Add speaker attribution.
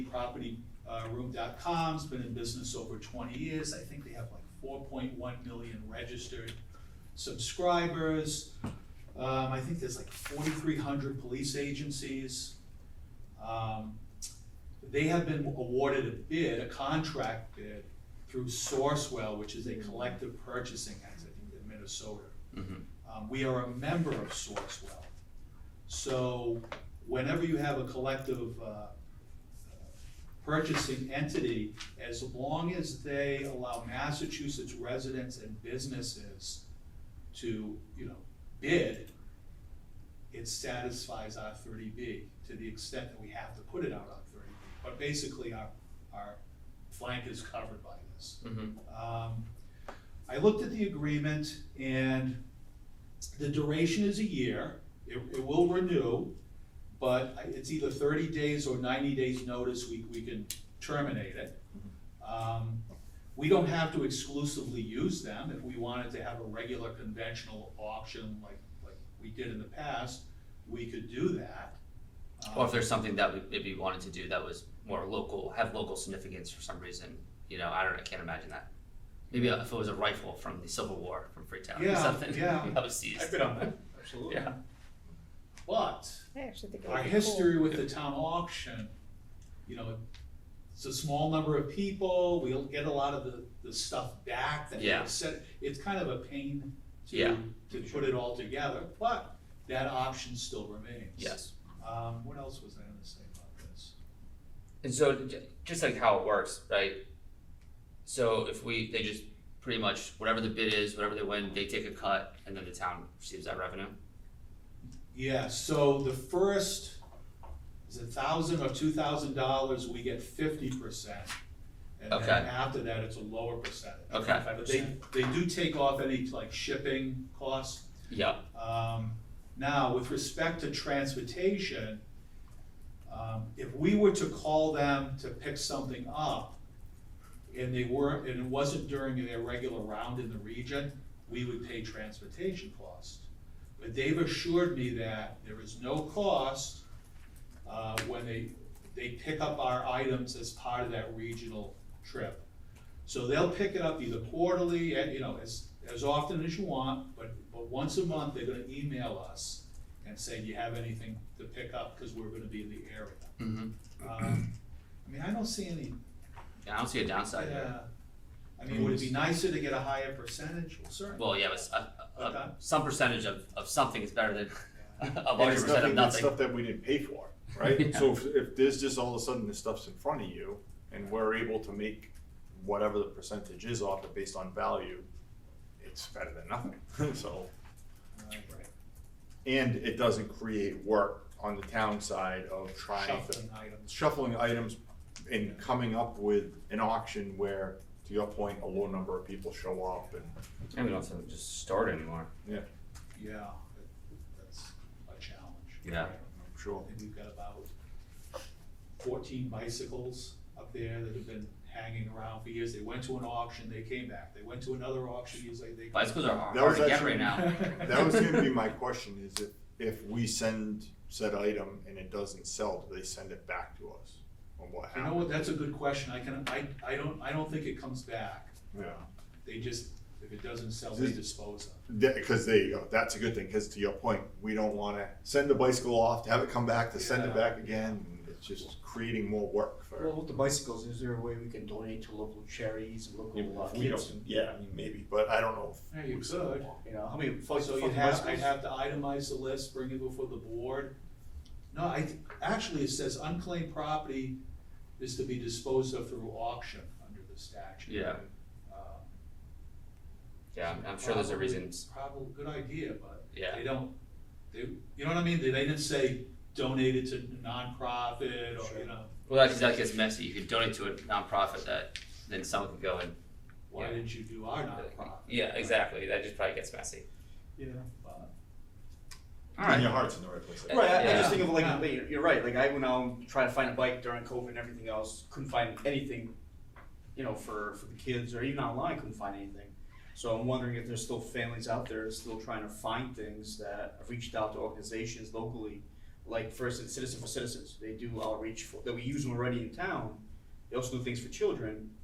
Speaker 1: propertyroom.com's been in business over twenty years. I think they have like four point one million registered subscribers. Um, I think there's like forty-three hundred police agencies. Um, they have been awarded a bid, a contract bid, through Sourcewell, which is a collective purchasing entity in Minnesota.
Speaker 2: Mhm.
Speaker 1: Um, we are a member of Sourcewell. So whenever you have a collective, uh, uh, purchasing entity, as long as they allow Massachusetts residents and businesses to, you know, bid, it satisfies our thirty B to the extent that we have to put it out on thirty B. But basically, our, our flank is covered by this.
Speaker 2: Mhm.
Speaker 1: Um, I looked at the agreement and the duration is a year. It, it will renew, but I- it's either thirty days or ninety days notice, we, we can terminate it. Um, We don't have to exclusively use them. If we wanted to have a regular conventional auction like, like we did in the past, we could do that.
Speaker 2: Or if there's something that we maybe wanted to do that was more local, have local significance for some reason, you know, I don't, I can't imagine that. Maybe if it was a rifle from the Civil War from Freetown or
Speaker 1: Yeah,
Speaker 2: something
Speaker 1: yeah.
Speaker 2: that was seized.
Speaker 1: I've been on that, absolutely.
Speaker 2: Yeah.
Speaker 1: Um, But
Speaker 3: I actually think it
Speaker 1: our
Speaker 3: would be cool.
Speaker 1: history with the town auction, you know, it's a small number of people, we'll get a lot of the, the stuff back that
Speaker 2: Yeah.
Speaker 1: we said. It's kind of a pain to,
Speaker 2: Yeah.
Speaker 1: to put it all together, but that option still remains.
Speaker 2: Yes.
Speaker 1: Um, what else was I gonna say about this?
Speaker 2: And so, j- just like how it works, right? So if we, they just pretty much whatever the bid is, whatever they win, they take a cut, and then the town receives that revenue.
Speaker 1: Yeah, so the first, is it thousand or two thousand dollars, we get fifty percent. And then
Speaker 2: Okay.
Speaker 1: after that, it's a lower percentage.
Speaker 2: Okay.
Speaker 1: But they, they do take off any like shipping costs.
Speaker 2: Yeah.
Speaker 1: Um, Now, with respect to transportation, um, if we were to call them to pick something up and they weren't, and it wasn't during their regular round in the region, we would pay transportation costs. But they've assured me that there is no cost uh, when they, they pick up our items as part of that regional trip. So they'll pick it up either quarterly, and, you know, as, as often as you want, but, but once a month, they're gonna email us and say, do you have anything to pick up, cause we're gonna be in the area.
Speaker 2: Mm-hmm.
Speaker 1: Um, I mean, I don't see any,
Speaker 2: Yeah, I don't see a downside there.
Speaker 1: uh, I mean, would it be nicer to get a higher percentage? Well, certainly.
Speaker 2: Well, yeah, but s- a- a- a-
Speaker 1: Okay.
Speaker 2: some percentage of, of something is better than a
Speaker 4: And
Speaker 2: larger
Speaker 4: it's
Speaker 2: percent of
Speaker 4: nothing, it's
Speaker 2: nothing.
Speaker 4: stuff that we didn't pay for, right?
Speaker 2: Yeah.
Speaker 4: So if, if there's just all of a sudden this stuff's in front of you and we're able to make whatever the percentage is off it based on value, it's better than nothing, so.
Speaker 1: Right.
Speaker 4: And it doesn't create work on the town side of trying to,
Speaker 1: Shuffling items.
Speaker 4: shuffling items and coming up with an auction where, to your point, a low number of people show up and,
Speaker 2: And we don't have to just start anymore.
Speaker 4: yeah,
Speaker 1: Yeah, that- that's a challenge.
Speaker 2: Yeah.
Speaker 4: I'm sure.
Speaker 1: And we've got about fourteen bicycles up there that have been hanging around for years. They went to an auction, they came back. They went to another auction, years later, they.
Speaker 2: Bicycles are hard,
Speaker 4: That
Speaker 2: hard
Speaker 4: was
Speaker 2: to get
Speaker 4: actually-
Speaker 2: right now.
Speaker 4: That was gonna be my question, is if, if we send said item and it doesn't sell, do they send it back to us? Or what
Speaker 1: You know what,
Speaker 4: happens?
Speaker 1: that's a good question. I can, I, I don't, I don't think it comes back.
Speaker 4: Yeah,
Speaker 1: They just, if it doesn't sell, they dispose of.
Speaker 4: That- cause there you go, that's a good thing, cause to your point, we don't wanna send the bicycle off, to have it come back, to send
Speaker 1: Yeah.
Speaker 4: it back again, and it's just creating more work
Speaker 5: Well,
Speaker 4: for.
Speaker 5: with the bicycles, is there a way we can donate to local charities and local uh,
Speaker 4: We
Speaker 5: kids?
Speaker 4: don't, yeah, I mean, maybe, but I don't know. if
Speaker 1: Yeah, you
Speaker 4: we sell
Speaker 1: could.
Speaker 4: them all.
Speaker 5: You know, how many
Speaker 1: Well,
Speaker 5: fucking
Speaker 1: So
Speaker 5: fucking
Speaker 1: you'd have, I'd
Speaker 5: bicycles?
Speaker 1: have to itemize the list, bring it before the board. No, I, actually, it says unclaimed property is to be disposed of through auction under the statute.
Speaker 2: Yeah,
Speaker 1: Um,
Speaker 2: yeah, I'm sure there's a
Speaker 1: Probably-
Speaker 2: reason.
Speaker 1: Probably, good idea, but
Speaker 2: Yeah.
Speaker 1: they don't, they, you know what I mean? They they didn't say donate it to nonprofit or, you
Speaker 5: Sure.
Speaker 1: know,
Speaker 2: Well, that, that gets messy. You could donate to a nonprofit that then someone could go and.
Speaker 1: why
Speaker 2: Yeah.
Speaker 1: didn't you do our nonprofit?
Speaker 2: Yeah, exactly. That just probably gets messy.
Speaker 1: Yeah. but-
Speaker 2: All
Speaker 4: Then
Speaker 2: right.
Speaker 4: your heart's in the right place.
Speaker 5: Right, I, I
Speaker 2: Yeah.
Speaker 5: just think of like,
Speaker 1: Yeah.
Speaker 5: like, you're, you're right, like I went out and tried to find a bike during COVID and everything else, couldn't find anything, you know, for, for the kids or even online, couldn't find anything. So I'm wondering if there's still families out there still trying to find things that have reached out to organizations locally, like for instance, Citizen for Citizens, they do outreach for, that we use them already in town. They also do things for children,